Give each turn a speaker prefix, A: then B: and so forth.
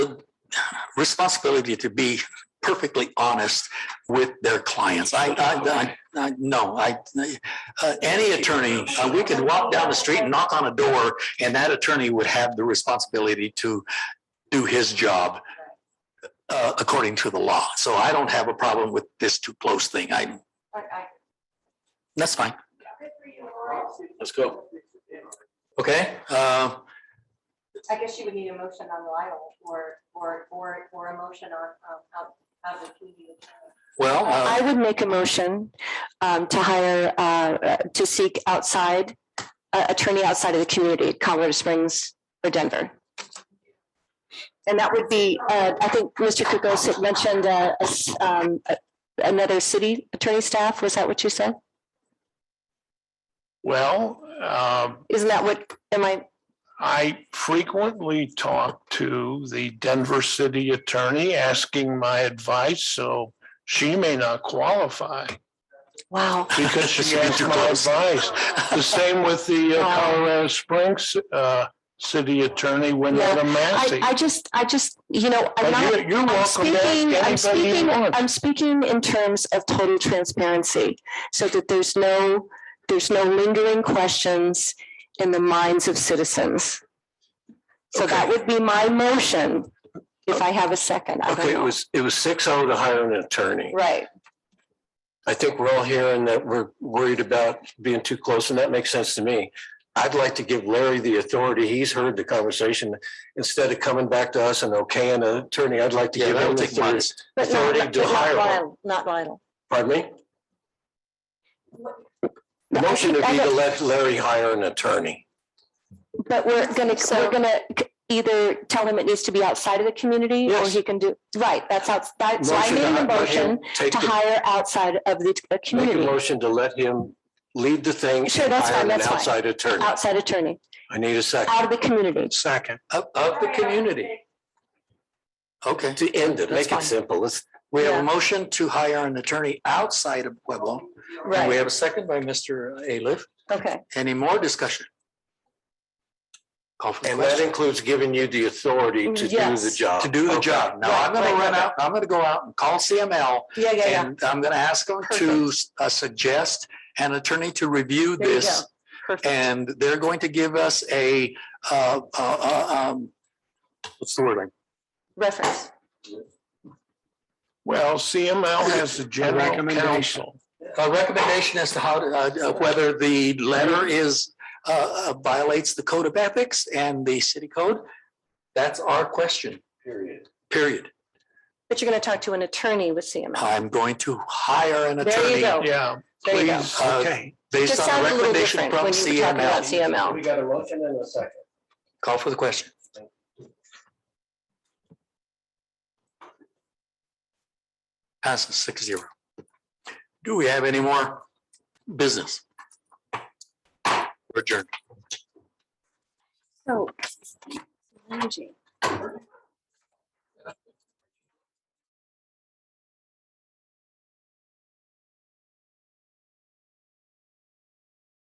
A: responsibility to be perfectly honest with their clients. I, I, I, I no, I, uh, any attorney, uh, we could walk down the street and knock on a door, and that attorney would have the responsibility to do his job uh, according to the law. So I don't have a problem with this too close thing. I, that's fine.
B: Let's go.
A: Okay, uh,
C: I guess you would need a motion on Lyle or, or, or, or a motion on, um, out, out of the.
A: well,
D: I
A: uh,
D: would make a motion um, to hire, uh, uh, to seek outside, uh, attorney outside of the community, Colorado Springs or Denver. And that would be, uh, I think Mr. Kukos had mentioned uh, a s- um, a- another city attorney staff. Was that what you said?
E: Well, um,
D: Isn't that what, am I,
E: I frequently talk to the Denver city attorney asking my advice, so she may not qualify
D: wow,
E: because she asked
A: You're
E: my
A: close.
E: advice. The same with the
D: Oh.
E: uh, Colorado Springs uh, city attorney, Winona
D: I,
E: Massey.
D: I just, I just, you know, I'm
E: But
D: not.
E: You're you're
D: I'm
E: welcome to
D: speaking, I'm
E: ask anybody you
D: speaking,
E: want.
D: I'm speaking in terms of total transparency, so that there's no, there's no lingering questions in the minds of citizens. So that would be my motion, if I have a second, I
B: Okay,
D: don't
B: it
D: know.
B: was, it was six oh to hire an attorney.
D: Right,
B: I think we're all hearing that we're worried about being too close, and that makes sense to me. I'd like to give Larry the authority. He's heard the conversation. Instead of coming back to us and okaying an attorney, I'd like to
A: yeah,
B: give him
A: that'll
B: the
A: take
B: authority.
A: months.
D: but not,
B: Authority to
D: but
B: hire
D: not
B: one.
D: Lyle, not Lyle.
B: Pardon me?
D: No,
B: The
D: I
B: motion would
D: think-
B: be
D: I
B: to
D: don't-
B: let Larry hire an attorney.
D: But we're gonna, we're gonna either tell him it needs to be outside of the community, or
B: Yes.
D: he can do, right, that's outside, so I
B: Motion to
D: made a
B: hi- let him
D: motion
B: Take
D: to
B: the,
D: hire outside of the uh,
B: make a
D: community,
B: motion to let him lead the thing.
D: Sure,
B: and
D: that's
B: hire
D: fine,
B: an
D: that's fine.
B: Outside attorney.
D: outside attorney,
B: I need a second
D: out of the community.
E: Second.
A: Of, of the community. Uh, Okay.
B: to end it.
D: That's
B: Make it
D: fine.
B: simple. Let's,
A: We have
D: Yeah.
A: a motion to hire an attorney outside of Pueblo. And we
D: Right,
A: have a second by Mr. Aliff.
D: okay.
A: Any more discussion? Call for the
B: and that
A: question.
B: includes giving you the authority to do the
D: Yes.
B: job.
A: To do the
B: Okay.
A: job. Now, I'm gonna
D: Right, right,
A: run out, I'm gonna go out and call CML
D: Yeah, yeah, yeah.
A: and I'm gonna ask them to uh, suggest an attorney to review
D: There you
A: this.
D: go. Perfect.
A: And they're going to give us a, uh, uh, uh, um, what's the word?
D: Reference.
E: Well, CML has the general
A: recommendation.
E: counsel.
A: A recommendation as to how, to, uh, uh, whether the letter is, uh, uh, violates the code of ethics and the city code. That's our question,
B: Period.
A: period.
D: But you're going to talk to an attorney with CML.
A: I'm going to hire an
D: There you
A: attorney
D: go.
E: Yeah,
D: There you go.
E: please,
A: Uh,
E: okay.
A: based
D: Just
A: on
D: sounds
A: the
D: a little
A: recommendation
D: different
A: from
D: when you were talking about
A: CML.
D: CML.
B: got a motion and a second.
A: Call for the question. Passes six zero. Do we have any more business? Adjourn.
D: So. Angie,